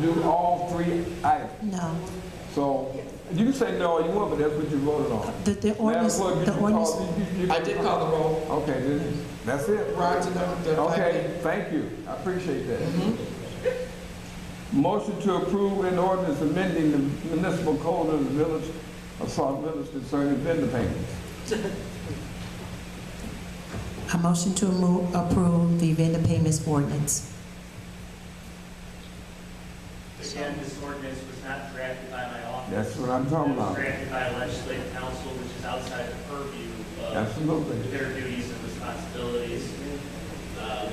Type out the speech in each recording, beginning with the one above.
Do all three items. No, So you say no, you want, but that's what you voted on. the, the Madam ordinance, Clerk, the did you ordinance, call- you- you- you- I did call the roll Okay, then, that's it. prior to the, the Okay, thank you. I appreciate that. Motion to approve an ordinance amending the municipal code of the village of South Village concerning vendor payments. I motion to move, approve the vendor payments ordinance. Again, this ordinance was not drafted by my office. That's what I'm talking It was about. drafted by legislative council, which is outside the purview of Absolutely. their duties and responsibilities. Uh,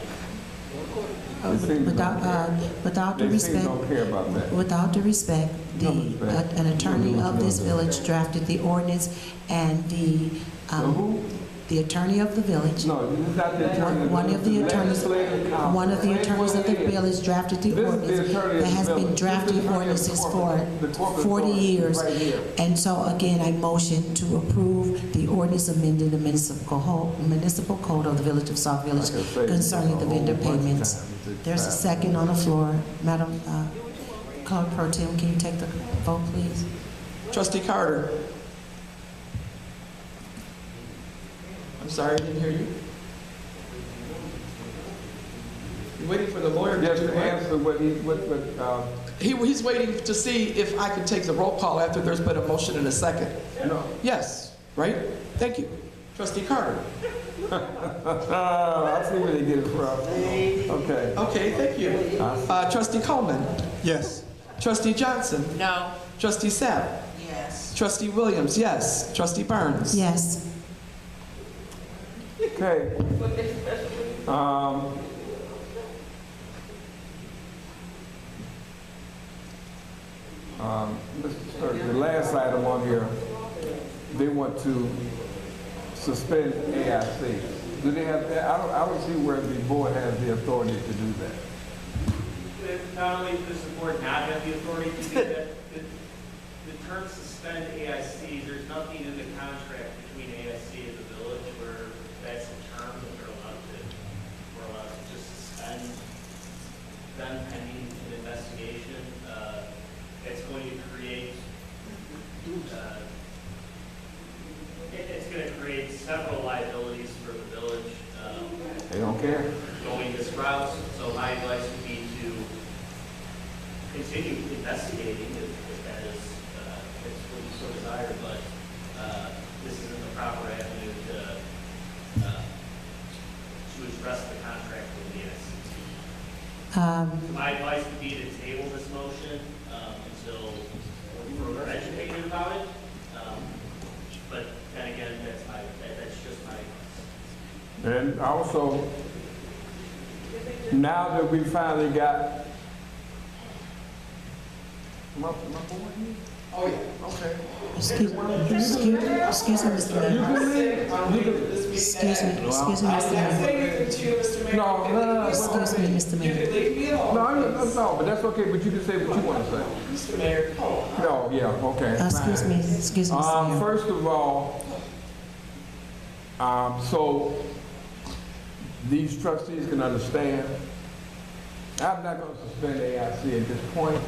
Uh, It seems Without, uh, without the They seem respect, don't care about that. without the respect, the, uh, No respect. an attorney of this village drafted the ordinance and the, So um, who? the attorney of the village, No, it's not the attorney. One of the attorneys- Legislative council. one of the Say attorneys what of the it is. village drafted the This is the ordinance. attorney of That the has been village. This drafting is the attorney of the ordinances for corporate- the corporate forty authority years. right here. And so again, I motion to approve the ordinance amending the municipal ho- municipal code of the Village of South Village Like I say, concerning a the whole vendor bunch of payments. times it's There's a expired. second on the floor. Madam uh, Clerk Pro Tem, can you take the vote, please? plan. Trustee Carter. I'm sorry, I didn't hear you. You're waiting for the lawyer to Yes, do to what? answer what he, what, what, uh, He, he's waiting to see if I can take the roll call after there's been a motion and a second. no. Yes, right? Thank you. Trustee Carter. Uh, I see where they get it from. Okay. Okay, thank you. Uh, Trustee Coleman. Yes. Trustee Johnson. No. Trustee Sapp. Yes. Trustee Williams, yes. Trustee Burns. Yes. Okay. Um, um, Mr. Clerk, the last item on here, they want to suspend AIC. Do they have, I don't, I don't see where the board has the authority to do that. Not only does the board not have the authority to do that, the, the term suspend AIC, there's nothing in the contract between AIC and the village where that's a term that they're allowed to, we're allowed to just suspend them pending an investigation. Uh, It's going to create, uh, it, it's going to create several liabilities for the village. Um, They don't care. going this route, so my advice would be to continue investigating if if that is, uh, if it's what you so desire, but uh, this isn't the proper avenue to, uh, to address the contract with the NCT. Um, My advice would be to table this motion um, until we're further educated about it, Um, but then again, that's my, that- that's just my advice. And also, now that we finally got. My, my boy here? Oh, yeah. Okay. Excuse excuse- excuse me, Mr. You Mayor. can leave. You can- Excuse me, excuse me, Mr. Mayor. No, no, no, no. Excuse me, Mr. Mayor. No, I don't- no, no, but that's okay, but you can say what you want to say. Mr. Mayor. No, yeah, okay. Uh, Excuse me, excuse me, Mr. Um, Mayor. first of all, um, so these trustees can understand, I'm not gonna suspend AIC at this point.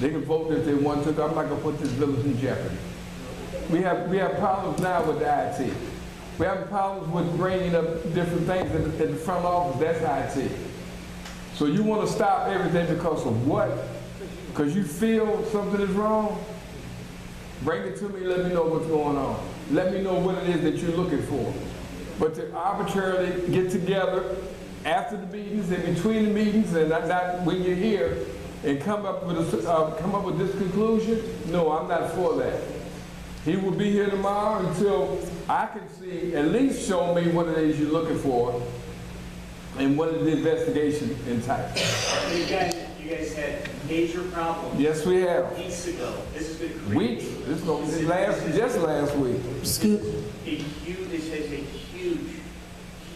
They can vote if they want to, I'm not gonna put this village in jeopardy. We have, we have problems now with the IT. We have problems with bringing up different things in, in the front office, that's IT. So you wanna stop everything because of what? Because you feel something is wrong? Bring it to me, let me know what's going on. Let me know what it is that you're looking for. But to arbitrarily get together after the meetings and between the meetings and not, not when you're here and come up with a, s- uh, come up with this conclusion, no, I'm not for that. He will be here tomorrow until I can see, at least show me what it is you're looking for and what is the investigation entitled. You guys, you guys had major problems Yes, we have. weeks ago. This has been Weeks, creating this is gonna be last, just last week. Excuse, a huge, this is a huge,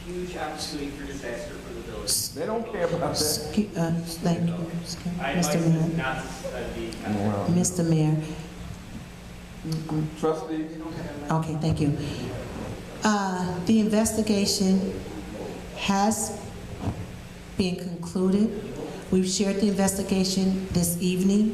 huge opportunity for disaster for the village. They don't care about that. excu- uh, thank you, excuse- My Mr. advice Mayor. is not to suspend the Wow. Mr. Mayor, Trustees, okay, thank you. Uh, The investigation has been concluded. We've shared the investigation this evening.